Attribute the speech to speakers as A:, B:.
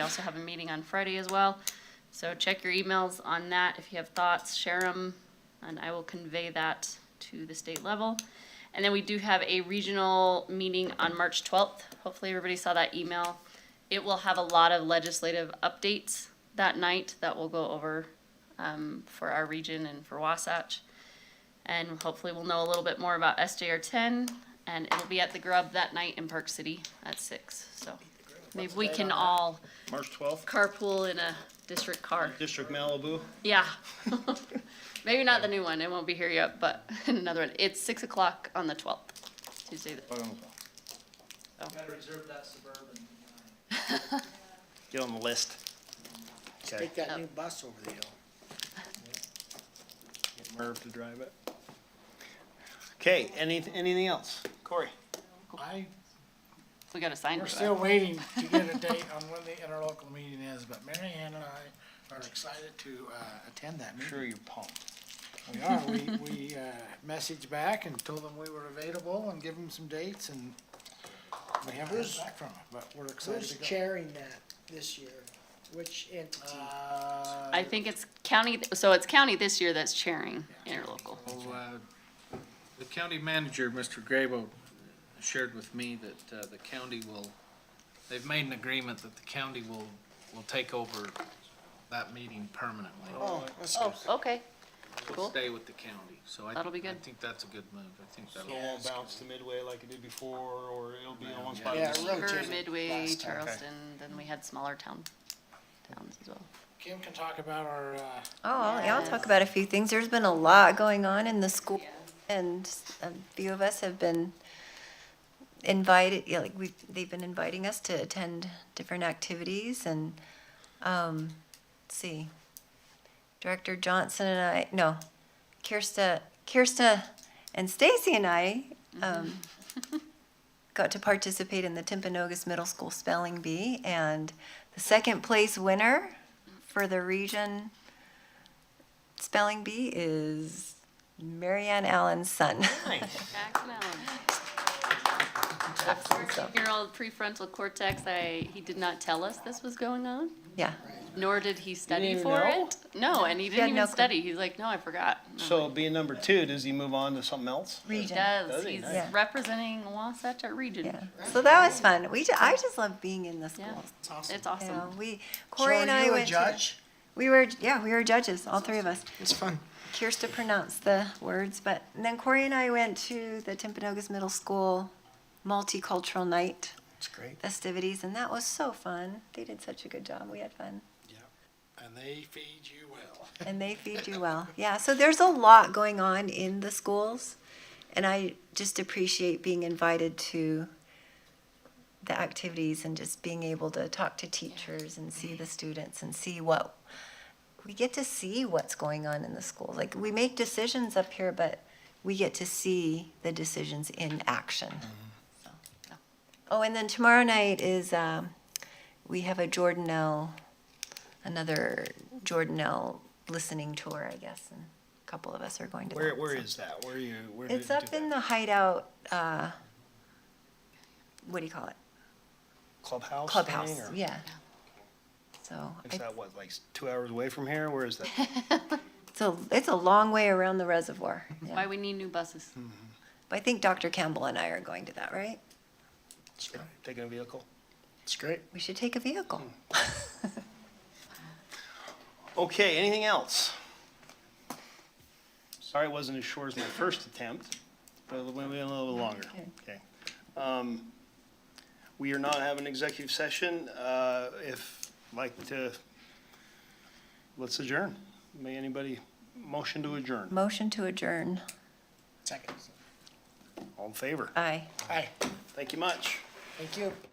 A: We also have a meeting on Friday as well, so check your emails on that. If you have thoughts, share them, and I will convey that to the state level. And then we do have a regional meeting on March twelfth. Hopefully, everybody saw that email. It will have a lot of legislative updates that night that we'll go over um, for our region and for Wasatch. And hopefully, we'll know a little bit more about SJR ten, and it'll be at the Grub that night in Park City at six, so. Maybe we can all
B: March twelfth,
A: carpool in a district car.
B: District Malibu.
A: Yeah. Maybe not the new one. It won't be here yet, but another one. It's six o'clock on the twelfth, Tuesday.
B: Oh.
A: the-
C: Gotta reserve that suburban.
B: Get on the list. Okay.
D: Take that new bus over the hill.
B: Get Merv to drive it. Okay, any, anything else? Corey?
E: I,
A: We got to sign
E: we're
A: for that.
E: still waiting to get a date on when the interlocal meeting is, but Mary Ann and I are excited to, uh, attend that meeting.
B: you're pumped.
E: We are, we, we, uh, messaged back and told them we were available and give them some dates and we haven't heard back from them, but we're excited
D: Who's
E: to go.
D: chairing that this year? Which entity?
E: Uh,
A: I think it's county, so it's county this year that's chairing interlocal.
F: Well, uh, The county manager, Mr. Grabo, shared with me that uh, the county will, they've made an agreement that the county will, will take over that meeting permanently.
D: Oh, that's
A: Oh,
D: good.
A: okay.
F: We'll
A: Cool.
F: Stay with the county, so I.
A: That'll be
F: I
A: good.
F: think that's a good move. I think
B: So
F: that'll.
B: it won't bounce to midway like it did before, or it'll be in one spot.
E: Yeah,
B: Just-
E: it rotated
A: Weaver, Midway,
E: last time.
A: Charleston, then we had smaller town, towns as well.
E: Kim can talk about our, uh,
G: Oh, I'll- yeah, I'll talk about a few things. There's been a lot going on in the school, and a few of us have been invited, yeah, like, we, they've been inviting us to attend different activities, and, um, let's see. Director Johnson and I, no, Kirsta, Kirsta and Stacy and I, um, got to participate in the Timpanogos Middle School Spelling Bee, and the second place winner for the region spelling bee is Marianne Allen's son.
A: Jackson Allen. Fourteen-year-old prefrontal cortex, I, he did not tell us this was going on,
G: yeah.
A: nor did he study for it. No, and he
G: had
A: didn't
G: no
A: even
G: clue.
A: study. He's like, no, I forgot. And I'm
B: So
A: like,
B: being number two, does he move on to something else?
A: He
G: Region.
A: does.
B: Does he?
A: He's
B: Nice.
G: Yeah.
A: representing Wasatch at Region.
G: Yeah. So that was fun. We ju- I just love being in the
A: Yeah.
G: schools.
A: It's
G: You
A: awesome.
G: know, we
E: so
G: Corey
E: are
G: and I
E: you a
G: went to-
E: judge?
G: we were yeah, we were judges, all three of us.
E: It's fun.
G: Kirsta pronounced the words, but and then Corey and I went to the Timpanogos Middle School multicultural night
E: It's great.
G: festivities and that was so fun. They did such a good job. We had fun.
E: And they feed you well.
G: And they feed you well. Yeah, so there's a lot going on in the schools. And I just appreciate being invited to the activities and just being able to talk to teachers and see the students and see what we get to see what's going on in the schools. Like we make decisions up here, but we get to see the decisions in action. So, yeah. Oh, and then tomorrow night is um, we have a Jordanelle, another Jordanelle listening tour, I guess, and a couple of us are going to.
B: Where,
G: that,
B: where
G: so.
B: is that? Where are you? where do
G: It's
B: you
G: up
B: do
G: in
B: that?
G: the hideout. Uh, what do you call it?
B: Clubhouse? thing,
G: Clubhouse.
B: or-
G: Yeah. So
B: Is
G: I,
B: that what, like two hours away from here? Where is that?
G: it's a it's a long way around the reservoir. Yeah.
A: Why we need new buses.
G: But I think Dr. Campbell and I are going to that, right?
B: Taking a vehicle?
E: It's great.
G: We should take a vehicle.
B: Hmm. Okay, anything else? Sorry it wasn't as short as my first attempt, but we went a little bit longer. Okay. Um, We are not having executive session. Uh, If, like to, let's adjourn. May anybody, motion to adjourn.
G: Motion to adjourn.
E: Second.
B: All in favor?
G: Aye.
E: Hi,
B: Thank you much.
E: thank you.